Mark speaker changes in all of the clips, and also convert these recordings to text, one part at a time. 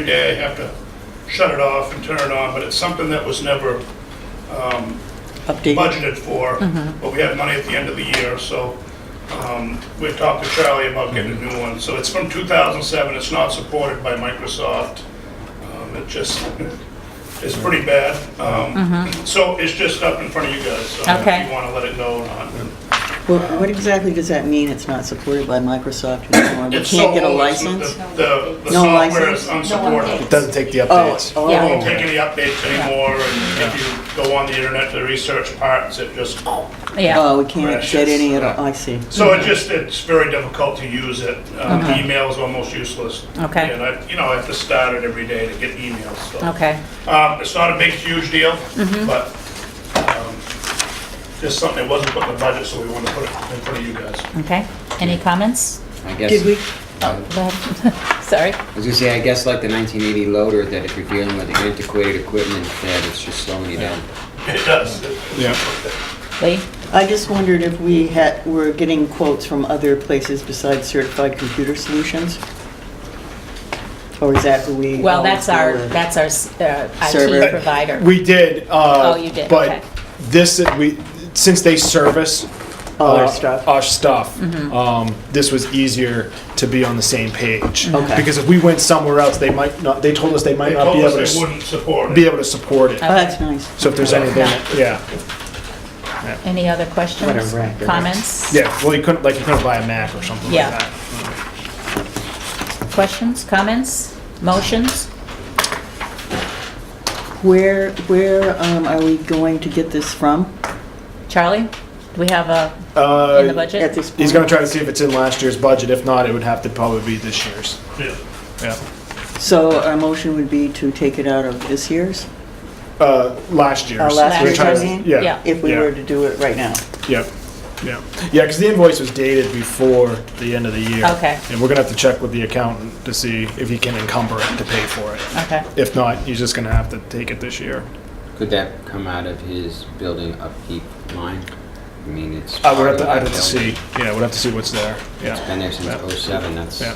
Speaker 1: Every day I have to shut it off and turn it on, but it's something that was never
Speaker 2: update.
Speaker 1: budgeted for,
Speaker 2: Mm-hmm.
Speaker 1: but we had money at the end of the year, so um, we talked to Charlie about getting a new one. So it's from 2007, it's not supported by Microsoft. Um, It just, it's pretty bad. Um,
Speaker 2: Mm-hmm.
Speaker 1: So it's just up in front of you guys, so
Speaker 3: Okay.
Speaker 1: if you want to let it go or not.
Speaker 2: Well, what exactly does that mean, it's not supported by Microsoft anymore? We
Speaker 1: It's
Speaker 2: can't get a
Speaker 1: so old, it's not-
Speaker 2: license?
Speaker 1: The, the- the
Speaker 2: No
Speaker 1: software is
Speaker 2: license?
Speaker 1: unsupported.
Speaker 4: It doesn't take the
Speaker 2: Oh,
Speaker 4: updates.
Speaker 3: Yeah.
Speaker 1: won't
Speaker 2: oh,
Speaker 1: take any updates anymore, and if you go on the internet to research parts, it just,
Speaker 3: Yeah,
Speaker 2: oh, we can't get any at all, I see.
Speaker 1: so it just, it's very difficult to use it. Um, Email is almost useless.
Speaker 3: Okay.
Speaker 1: And I, you know, I have to start it every day to get emails, so.
Speaker 3: okay,
Speaker 1: Um, It's not a big, huge deal, but um, just something that wasn't put in the budget, so we wanted to put it in front of you guys.
Speaker 3: okay. Any comments?
Speaker 5: I
Speaker 2: Did we,
Speaker 5: guess, uh,
Speaker 3: Go ahead. Sorry.
Speaker 5: I was gonna say, I guess like the 1980 loader, that if you're dealing with antiquated equipment, that it's just slowing you down.
Speaker 1: It does.
Speaker 3: Lee?
Speaker 2: I just wondered if we had, were getting quotes from other places besides Certified Computer Solutions? Or is that who we?
Speaker 3: Well,
Speaker 2: always
Speaker 3: that's our,
Speaker 2: go with?
Speaker 3: that's our s- uh,
Speaker 2: Server.
Speaker 3: IT provider.
Speaker 4: We did, uh.
Speaker 3: Oh, you did, okay.
Speaker 4: But this, we, since they service.
Speaker 2: All our
Speaker 4: uh,
Speaker 2: stuff. Mm-hmm.
Speaker 4: Our stuff, um, this was easier to be on the same page.
Speaker 2: Mm-hmm. Okay.
Speaker 4: Because if we went somewhere else, they might not, they told us they might
Speaker 1: They
Speaker 4: not
Speaker 1: told
Speaker 4: be able to,
Speaker 1: us they
Speaker 4: s-
Speaker 1: wouldn't support
Speaker 4: be
Speaker 1: it.
Speaker 4: able to support it.
Speaker 2: Oh, that's nice.
Speaker 4: So if there's anything, yeah,
Speaker 3: Any other questions?
Speaker 2: What a racket.
Speaker 3: Comments?
Speaker 4: yeah, well, you couldn't, like, you couldn't buy a Mac or something like
Speaker 3: Yeah.
Speaker 4: that.
Speaker 3: Questions, comments, motions?
Speaker 2: Where, where um, are we going to get this from
Speaker 3: Charlie, do we have a,
Speaker 4: Uh,
Speaker 3: in the
Speaker 2: at
Speaker 3: budget?
Speaker 2: this point?
Speaker 4: He's gonna try to see if it's in last year's budget, if not, it would have to probably be this year's,
Speaker 1: Yeah.
Speaker 4: yeah.
Speaker 2: So our motion would be to take it out of this year's,
Speaker 4: Uh, last year's.
Speaker 2: Oh, last
Speaker 4: We're
Speaker 2: year's,
Speaker 4: trying
Speaker 2: I
Speaker 4: to-
Speaker 2: mean?
Speaker 4: Yeah,
Speaker 3: Yeah.
Speaker 2: if we
Speaker 4: Yeah.
Speaker 2: were to do it right now?
Speaker 4: Yep, yeah, yeah, because the invoice was dated before the end of the year.
Speaker 3: Okay.
Speaker 4: And we're gonna have to check with the accountant to see if he can encumber it to pay for it.
Speaker 3: Okay,
Speaker 4: If not, he's just gonna have to take it this year.
Speaker 5: Could that come out of his building upkeep line? I mean, it's.
Speaker 4: I would have to,
Speaker 5: part
Speaker 4: I'd
Speaker 5: of
Speaker 4: have
Speaker 5: that
Speaker 4: to
Speaker 5: building.
Speaker 4: see, yeah, we'd have to see what's there, yeah.
Speaker 5: Been there since '07, that's.
Speaker 4: Yeah.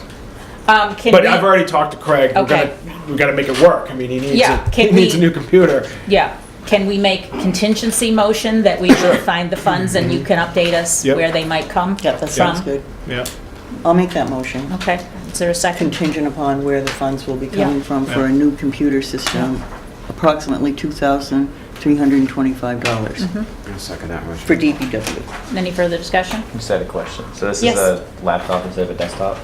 Speaker 3: um, can
Speaker 4: But I've
Speaker 3: we,
Speaker 4: already talked to Craig, we're
Speaker 3: Okay.
Speaker 4: gonna, we gotta make it work, I mean, he needs,
Speaker 3: Yeah,
Speaker 4: a- he
Speaker 3: can
Speaker 4: needs a
Speaker 3: we-
Speaker 4: new computer.
Speaker 3: yeah, can we make contingency motion that we will find the funds and you can update us
Speaker 4: Yep.
Speaker 3: where they might come?
Speaker 2: Yeah, that sounds
Speaker 3: from?
Speaker 2: good.
Speaker 4: Yeah,
Speaker 2: I'll make that motion,
Speaker 3: Okay, is there a second?
Speaker 2: contingent upon where the funds will be coming
Speaker 3: Yeah.
Speaker 2: from for a new computer system, approximately
Speaker 3: Mm-hmm.
Speaker 2: $2,325
Speaker 5: I'll suck at that
Speaker 2: for
Speaker 5: motion.
Speaker 2: DPW.
Speaker 3: Any further discussion?
Speaker 6: I just had a question. So this
Speaker 3: Yes.
Speaker 6: is a laptop instead of a desktop?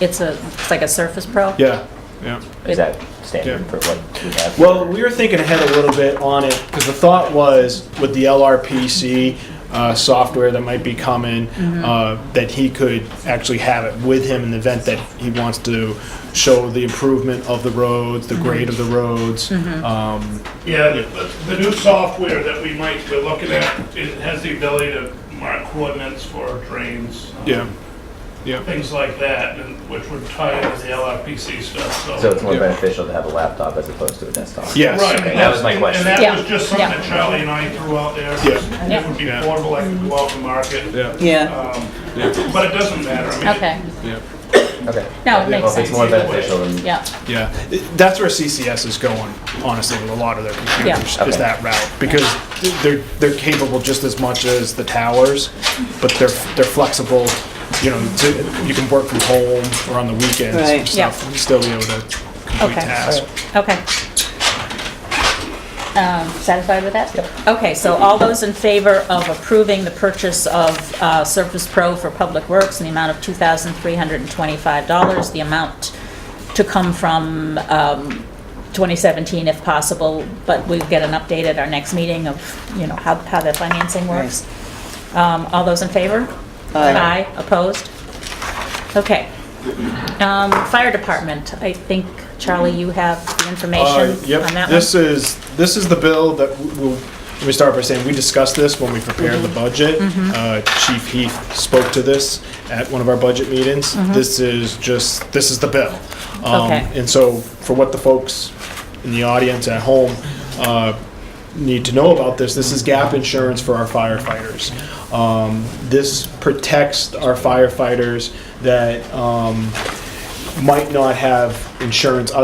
Speaker 3: It's a, it's like a Surface Pro?
Speaker 4: yeah, yeah.
Speaker 6: Is that standard
Speaker 4: Yeah.
Speaker 6: for what we have?
Speaker 4: Well, we were thinking ahead a little bit on it, because the thought was with the LRPC uh, software that might be coming, uh, that he could actually have it with him in the event that he wants to show the improvement of the roads, the grade of the roads. um,
Speaker 1: Yeah, the- the, the new software that we might, we're looking at, it has the ability to mark coordinates for our drains. um,
Speaker 4: Yeah, yeah.
Speaker 1: Things like that, and which would tie into the LRPC stuff,
Speaker 6: So
Speaker 1: so.
Speaker 6: it's more
Speaker 4: Yeah.
Speaker 6: beneficial to have a laptop as opposed to a desktop?
Speaker 4: Yes.
Speaker 1: Right, and
Speaker 6: That was my
Speaker 1: that's-
Speaker 6: question.
Speaker 1: And
Speaker 3: Yeah,
Speaker 1: that was just something
Speaker 3: yeah.
Speaker 1: that Charlie and I threw out there.
Speaker 4: Yeah.
Speaker 1: It would be
Speaker 4: Yeah.
Speaker 1: portable, I could go out and market.
Speaker 4: Yeah,
Speaker 2: Yeah,
Speaker 1: Um, But it doesn't matter, I mean. it-
Speaker 3: Okay,
Speaker 4: yeah.
Speaker 6: Okay.
Speaker 3: no, it makes
Speaker 6: Well, if it's
Speaker 3: sense.
Speaker 6: more beneficial than.
Speaker 3: Yeah,
Speaker 4: Yeah, It- that's where CCS is going, honestly, with a lot of their computers,
Speaker 6: Yeah.
Speaker 4: is
Speaker 6: Okay.
Speaker 4: that route. Because they're, they're capable just as much as the towers, but they're, they're flexible, you know, to, you can work from home or on the weekends
Speaker 2: Right.
Speaker 4: and stuff, and still be able to complete
Speaker 3: Okay.
Speaker 4: tasks.
Speaker 3: okay. Um, Satisfied with that? Okay, so all those in favor of approving the purchase of uh, Surface Pro for Public Works in the amount of $2,325, the amount to come from um, 2017 if possible, but we'll get an update at our next meeting of, you know, how how the financing works. Um, All those in favor?
Speaker 2: Aye.
Speaker 3: opposed? Okay. Um, Fire Department, I think, Charlie, you have the information
Speaker 4: Uh,
Speaker 3: on
Speaker 4: Yep,
Speaker 3: that one?
Speaker 4: this is, this is the bill that w- we'll, let me start by saying, we discussed this when we prepared the
Speaker 3: Mm-hmm.
Speaker 4: budget. Uh, Chief Heath spoke to this at one of our budget meetings. This is just, this is the bill. Um,
Speaker 3: Mm-hmm. Okay.
Speaker 4: And so for what the folks in the audience at home uh, need to know about this, this is gap insurance for our firefighters. Um, This protects our firefighters that um, might not have insurance